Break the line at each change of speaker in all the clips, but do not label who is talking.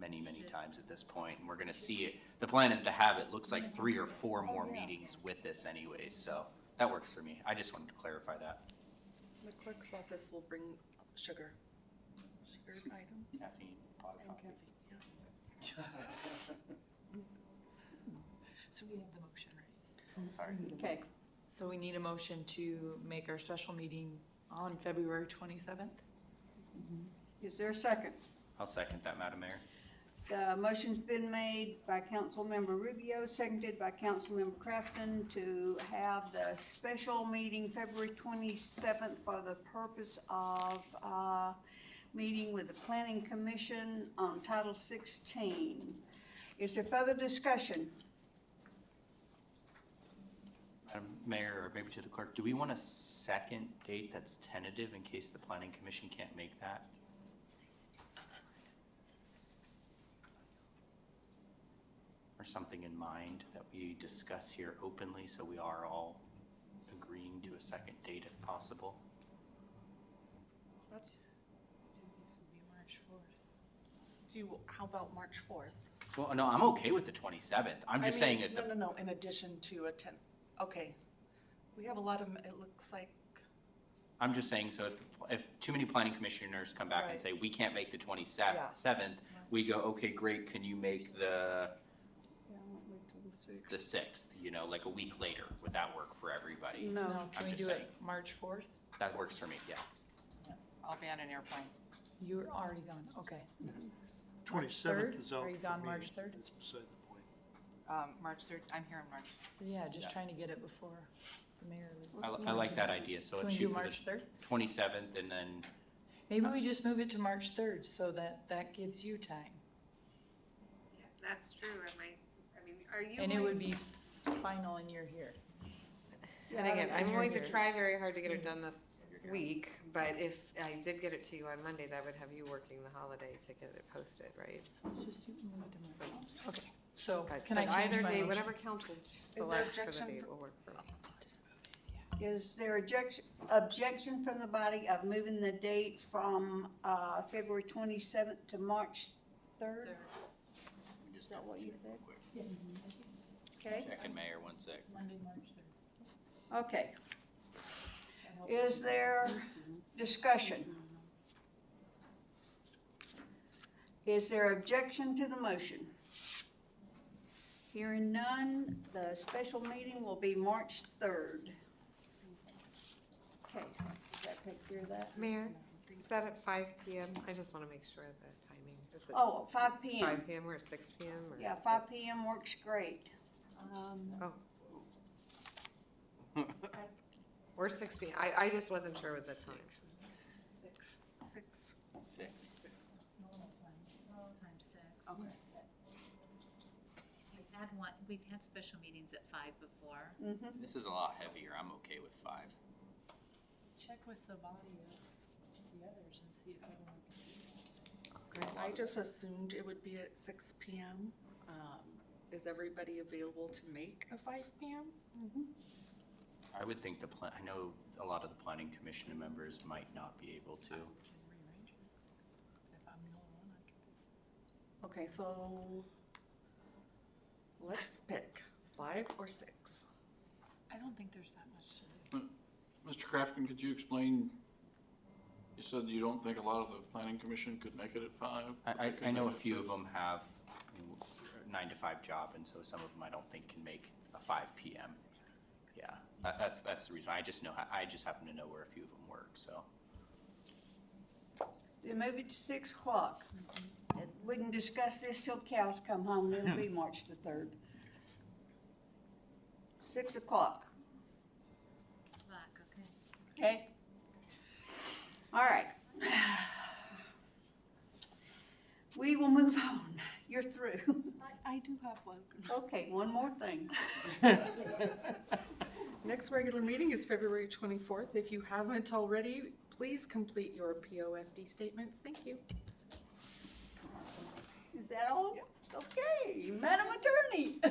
many, many times at this point, and we're gonna see it. The plan is to have, it looks like three or four more meetings with this anyways, so that works for me. I just wanted to clarify that.
The clerk's office will bring up sugar, sugar items.
Caffeine, pot of
and
coffee.
caffeine, yeah.
So we have the motion, right?
Sorry.
Okay,
So we need a motion to make our special meeting on February twenty-seventh?
is there a second?
I'll second that, Madam Mayor.
The motion's been made by Councilmember Rubio, seconded by Councilmember Crafton to have the special meeting February twenty-seventh for the purpose of, uh, meeting with the Planning Commission on Title sixteen. Is there further discussion?
Madam uh, Mayor, or maybe to the clerk, do we want a second date that's tentative in case the planning commission can't make that? Or something in mind that we discuss here openly, so we are all agreeing to a second date if possible?
That's, do, you- how about March fourth?
Well, no, I'm okay with the twenty-seventh. I'm just saying if
No,
the,
no, no, in addition to a ten, okay. We have a lot of, it looks like,
I'm just saying, so if, if too many planning commissioners come back and
Right.
say, we can't make the twenty-seventh, we go, okay, great, can you make the
Yeah, I won't wait till the sixth.
the sixth, you know, like a week later, would that work for everybody?
No,
Can we
just
do it
saying.
March fourth?
That works for me, yeah.
I'll be on an airplane.
You're already gone, okay.
Twenty-seventh
third?
is out
Are you
for
gone
me.
March third?
That's beside the point.
Um, March third, I'm here on March.
Yeah,
Yeah.
just trying to get it before the mayor leaves.
I, li- I like that idea, so
Can
let's
we do
shoot for
March
the
third?
twenty-seventh and then,
Maybe we just move it to March third so that that gives you time.
That's true, I might, I mean, are you?
And it
going
would
to-
be final and you're here.
And again, I'm
you're
going to
here.
try very hard to get it done this week, but if I did get it to you on Monday, that would have you working the holiday to get it posted, right?
Just do- move it to March. Okay, so
But-
can I
but
change my
Either day,
motion?
whatever council selects for the
objection
day
for-
will work for me.
is there objection, objection from the body of moving the date from, uh, February twenty-seventh to March third? Is that what you said? Okay.
second mayor, one sec.
Monday, March third.
Okay. Is there discussion? Is there objection to the motion? Hearing none, the special meeting will be March third. Okay, does that take care of that?
Mayor, is that at five P M? I just wanna make sure of the timing. Is it
Oh, five P M.
five P M or six P M or?
Yeah,
is it-
five P M works great. Um,
Oh. Or six P M. I, I just wasn't sure with the time.
six, six,
Six.
normal time, normal time six.
Okay.
We've had one, we've had special meetings at five before.
mhm.
This is a lot heavier, I'm okay with five.
Check with the body of the others and see if everyone can do that.
I just assumed it would be at six P M. Um, is everybody available to make a five P M?
I would think the plan, I know a lot of the planning commission members might not be able to.
Can rearrange it. If I'm the only one, I can.
Okay, so let's pick five or six.
I don't think there's that much to do.
Mr. Crafton, could you explain, you said you don't think a lot of the planning commission could make it at five? but
I,
they could
I, I know a
make it
few
at-
of them have you know, nine to five job, and so some of them I don't think can make a five P M. Yeah, that, that's, that's the reason, I just know, how- I just happen to know where a few of them work, so.
Then move it to six o'clock. And We can discuss this till cows come home, it'll be March the third. Six o'clock,
Fuck, okay.
okay? All right. We will move on, you're through.
I, I do have one.
Okay, one more thing.
Next regular meeting is February twenty-fourth. If you haven't already, please complete your P O F D statements. Thank you.
Is that all? Okay, Madam Attorney.
I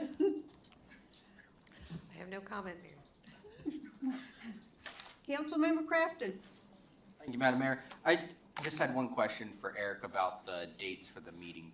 have no comment, Mayor.
Councilmember Crafton.
Thank you, Madam Mayor. I just had one question for Eric about the dates for the meeting